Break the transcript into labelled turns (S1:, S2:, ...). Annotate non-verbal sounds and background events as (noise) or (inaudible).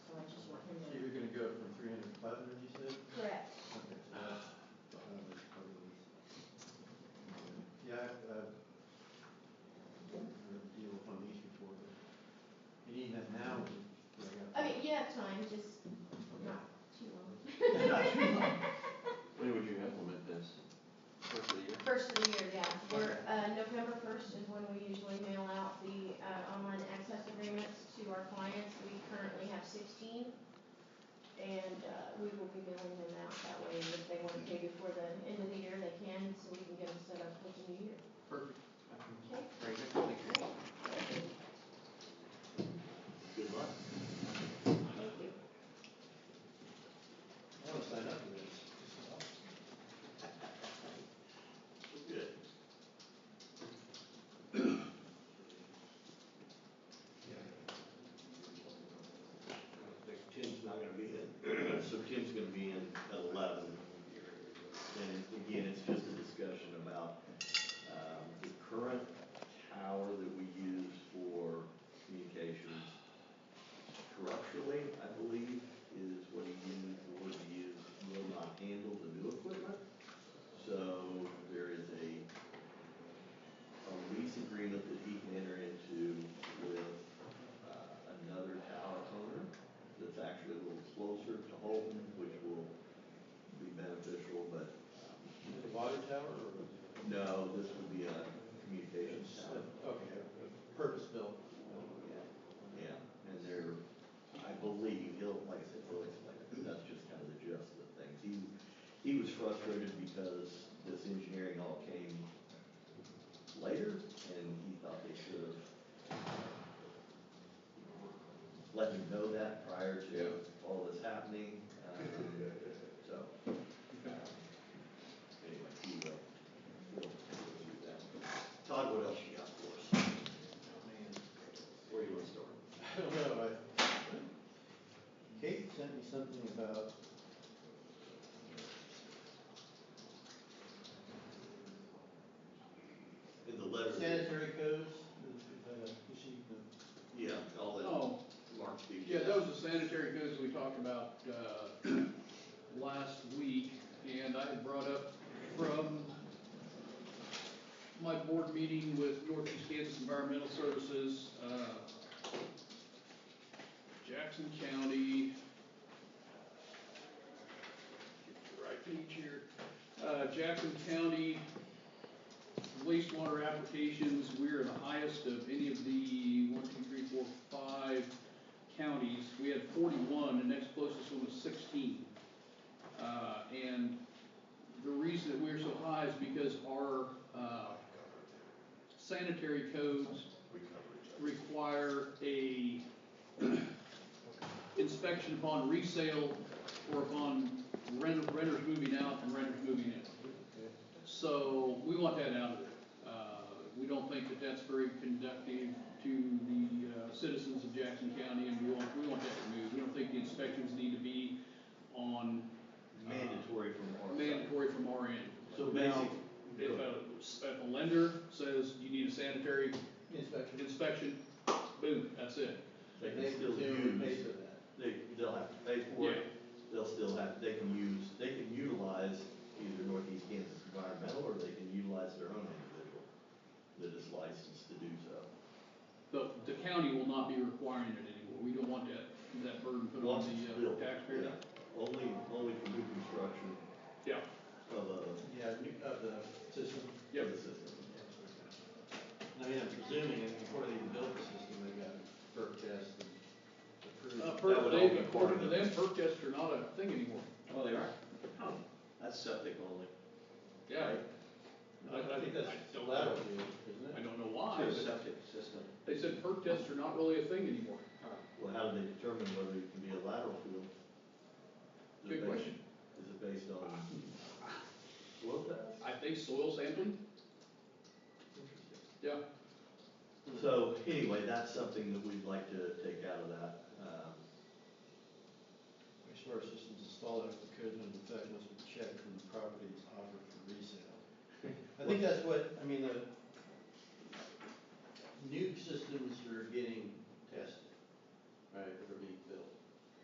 S1: Uh,
S2: got time, just not too long.
S1: Well,
S3: When would you implement this? First of the year?
S2: First of the year, yeah, we're, uh, November first is when we usually mail out the, uh, online access agreements to our clients. We currently have sixteen. And, uh, we will be mailing them out that way, if they want to pay before the end of the year, they can, so we can get them set up for the new year.
S3: Perfect.
S2: Okay.
S3: Very good, thank you. Good luck.
S2: Thank you.
S1: I wanna sign up for this. This is awesome.
S3: Good.
S4: Tim's not gonna be in, (clears throat) so Tim's gonna be in at eleven. And again, it's just a discussion about, um, the current tower that we use for communications. Structurally, I believe, is what he used, the word he used, will not handle the new equipment. So there is a, a lease agreement that he can enter into with, uh, another tower owner that's actually a little closer to Holton, which will be beneficial, but um,
S1: The water tower or?
S4: no, this would be a communications tower.
S1: Okay, purpose built.
S4: Yeah, yeah, and there, I believe, he'll, like I said, he'll explain it, but that's just kind of the gist of the things. He, he was frustrated because this engineering all came later, and he thought they should have let him know that prior to all this happening, um, so. um, Anyway, he will, he'll do that. Todd, what else you got for us?
S3: Where you want to start?
S1: I don't know, I, Kate sent me something about.
S4: In the letter.
S1: Sanitary codes, uh, she, uh,
S4: Yeah, all that,
S5: Oh,
S4: Mark speaks.
S5: yeah, those are sanitary codes we talked about, uh, (clears throat) last week, and I had brought up from my board meeting with Northeast Kansas Environmental Services, uh, Jackson County, get the right page here, uh, Jackson County wastewater applications, we're the highest of any of the one, two, three, four, five counties. We had forty-one, the next closest one was sixteen. Uh, and the reason that we're so high is because our, uh, sanitary codes require a (clears throat) inspection upon resale or upon renter, renters moving out and renters moving in. So we want that out of there. Uh, We don't think that that's very conductive to the uh, citizens of Jackson County, and we want, we want that removed. We don't think the inspections need to be on
S4: mandatory from our. side.
S5: mandatory from our end.
S4: Uh, So basic.
S5: If a, if a lender says you need a sanitary
S1: inspection,
S5: inspection, boom, that's it.
S4: They
S1: they
S4: can still
S1: still pay
S4: use,
S1: for that.
S4: they, they'll have to pay for it, they'll still have, they can use, they can utilize either Northeast Kansas Environmental, or they can utilize their own individual that is licensed to do so.
S5: The, the county will not be requiring it anymore. We don't want that, that burden put on
S4: Once it's
S5: the uh,
S4: built,
S5: taxpayer.
S4: yeah. Only, only for new construction
S5: Yeah,
S4: of a,
S1: Yeah, new- of the system.
S5: yep.
S4: of the system.
S1: I mean, I'm presuming, and before they even built the system, they got perk tests and approved.
S5: Uh,
S4: That
S5: per,
S4: would all be
S5: they,
S4: part of
S5: according to them, perk tests are not a thing anymore.
S4: Oh, they are? That's septic only.
S5: Yeah.
S4: right?
S5: I, I, I
S1: think that's
S5: don't
S1: lateral,
S5: know,
S1: isn't
S5: I
S1: it?
S5: don't know
S4: To
S5: why,
S4: a
S5: but
S4: septic system.
S5: they said perk tests are not really a thing anymore.
S4: Well, how do they determine whether it can be a lateral field? Is it
S5: Good
S4: based-
S5: question.
S4: Is it based on soil test?
S5: I think soil sampling, yeah.
S4: So anyway, that's something that we'd like to take out of that. Um,
S1: Wastewater systems installed after the code went into effect must be checked when the property is offered for resale. I think that's what, I mean, the new systems are getting